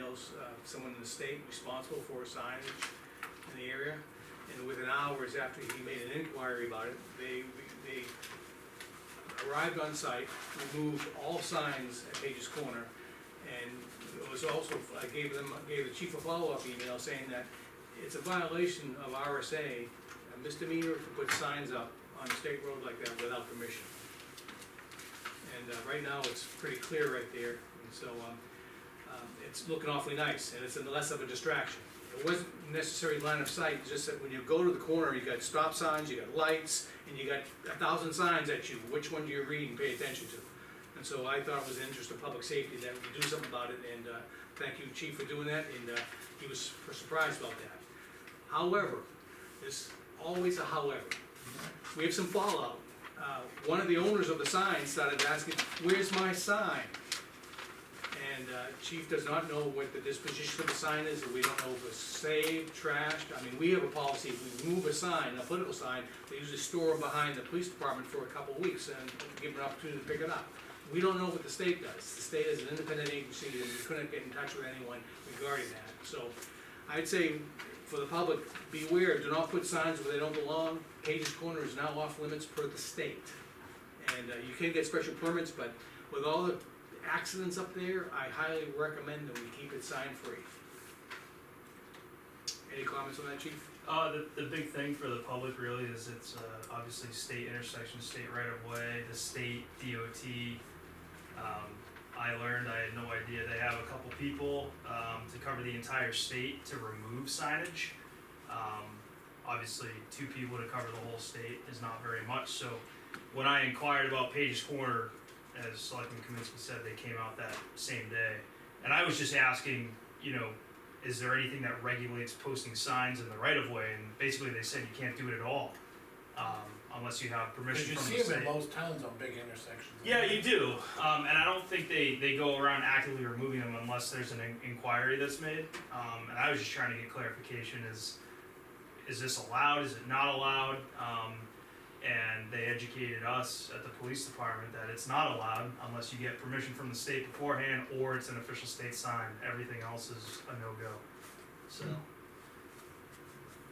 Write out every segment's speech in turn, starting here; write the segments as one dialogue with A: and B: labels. A: allows uh, someone in the state responsible for signage in the area. And within hours after he made an inquiry about it, they, they arrived on site, removed all signs at Page's Corner. And it was also, I gave them, gave the chief a follow-up email saying that it's a violation of RSA, a misdemeanor to put signs up on a state road like that without permission. And uh, right now, it's pretty clear right there, and so, um, um, it's looking awfully nice, and it's less of a distraction. It wasn't necessarily line of sight, just that when you go to the corner, you got stop signs, you got lights, and you got a thousand signs at you, which one do you read and pay attention to? And so I thought it was in the interest of public safety that we do something about it, and, uh, thank you, chief, for doing that, and, uh, he was surprised about that. However, there's always a however. We have some fallout. Uh, one of the owners of the sign started asking, where's my sign? And uh, chief does not know what the disposition of the sign is, and we don't know if it's saved, trashed, I mean, we have a policy, if we move a sign, a political sign, they usually store it behind the police department for a couple weeks and give them an opportunity to pick it up. We don't know what the state does, the state is an independent agency, and we couldn't get in touch with anyone regarding that, so I'd say for the public, beware, do not put signs where they don't belong, Cage's Corner is now off limits per the state. And uh, you can get special permits, but with all the accidents up there, I highly recommend that we keep it sign-free. Any comments on that, chief?
B: Uh, the, the big thing for the public really is it's, uh, obviously state intersection, state right of way, the state DOT. Um, I learned, I had no idea, they have a couple people, um, to cover the entire state to remove signage. Um, obviously, two people to cover the whole state is not very much, so when I inquired about Page's Corner, as Selectman Kaminsky said, they came out that same day. And I was just asking, you know, is there anything that regulates posting signs in the right of way? And basically, they said you can't do it at all um, unless you have
C: Cause
B: permission
C: you
B: from
C: see
B: the
C: them
B: state.
C: in most towns on big intersections.
B: yeah, you do. Um, and I don't think they, they go around actively removing them unless there's an in- inquiry that's made. Um, and I was just trying to get clarification is is this allowed? Is it not allowed? Um, and they educated us at the police department that it's not allowed unless you get permission from the state beforehand or it's an official state sign. Everything else is a no go. So.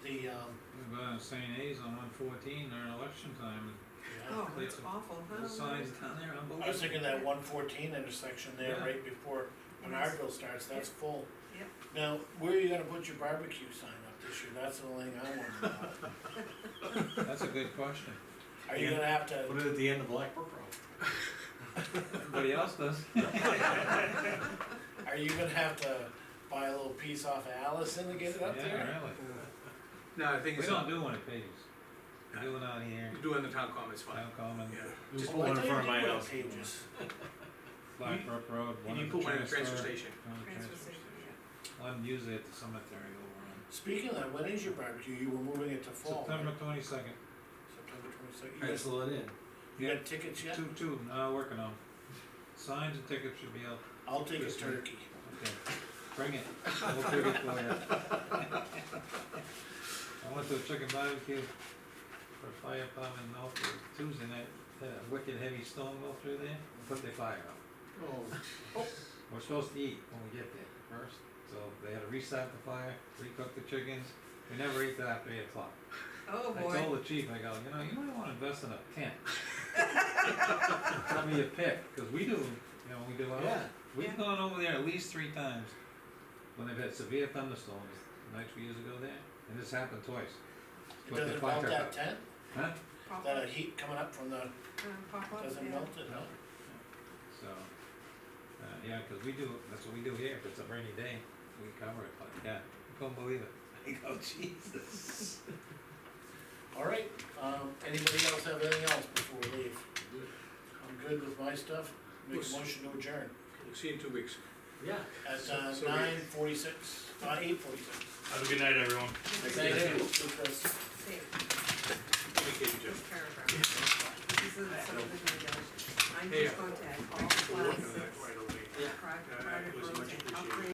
C: The, um,
D: We've got St. A's on one fourteen during election time,
C: yeah.
E: Oh, that's awful,
D: and
E: huh?
D: the signs down there, unbelievable.
C: I was thinking that one fourteen intersection there
D: Yeah.
C: right before Menardville starts, that's full.
E: Yep.
C: Now, where are you gonna put your barbecue sign up this year? That's the only thing I wanna know.
D: That's a good question.
C: Are you gonna have to,
F: Put it at the end of Blackbrook Road.
D: Everybody else does.
C: are you gonna have to buy a little piece off of Allison to get it up
D: Yeah,
C: there?
D: really.
A: No, I think
D: We
A: it's
D: don't
A: not,
D: do one at Pages. We do one out here,
A: doing the town comment's fine.
D: Down Common,
F: Just
C: Oh,
F: pull
C: I
F: it in
C: thought you
F: front of my
C: did
F: house.
C: want pages.
D: Blackbrook Road,
A: And
D: one
A: you
D: at the
A: put one in the
D: transfer.
A: transfer station.
D: one at the
E: Transfer
D: transfer
E: station, yeah.
D: station. One usually at the cemetery over on
C: Speaking of that, when is your barbecue? You were moving it to fall. right?
D: September twenty-second.
C: September twenty-second. You got,
F: Pencil it in.
C: you got tickets yet?
D: Two, two, uh, working on. Signs and tickets should be out,
C: I'll take a
D: Yes, ma'am.
C: turkey.
D: okay, bring it, we'll figure it for you. I went to a chicken barbecue for a fire department in Northwood Tuesday night, had a wicked heavy storm go through there, and put their fire out.
A: Oh,
D: We're supposed to eat when we get there first, so they had to restart the fire, recook the chickens, we never ate till after eight o'clock.
E: Oh,
D: I
E: boy.
D: told the chief, I go, you know, you might wanna invest in a tent. Tell me your pick, cause we do, you know, we do
F: Yeah.
D: ours. We've
E: Yeah.
D: gone over there at least three times when they've had severe thunderstorms, nights we used to go there, and this happened twice.
C: It
D: Put the
C: doesn't
D: fire
C: melt that
D: out.
C: tent?
D: Huh?
E: Pop up,
C: That heat coming up from the,
E: um, pop up,
C: doesn't
E: yeah.
C: melt it, huh?
D: So, uh, yeah, cause we do, that's what we do here, if it's a rainy day, we cover it, but yeah, you couldn't believe it. I go, Jesus.
C: All right, um, anybody else have anything else before we leave? I'm good with my stuff, make a
A: Yes.
C: motion to adjourn
A: we'll see you in two weeks.
F: Yeah.
C: at uh,
A: So- so we-
C: nine forty-six, uh, eight forty-six.
B: Have a good night, everyone.
C: Thank you. Chris.
E: Same,
A: Take care, Jim.
E: this paragraph. This is the subdivision regulations. I'm
A: Hey,
E: just going to add all
A: Thanks for working on
E: classes,
A: that right away.
E: private,
A: Uh, it
E: private
A: was
E: roads
A: much
E: and
A: appreciated.
E: upgrade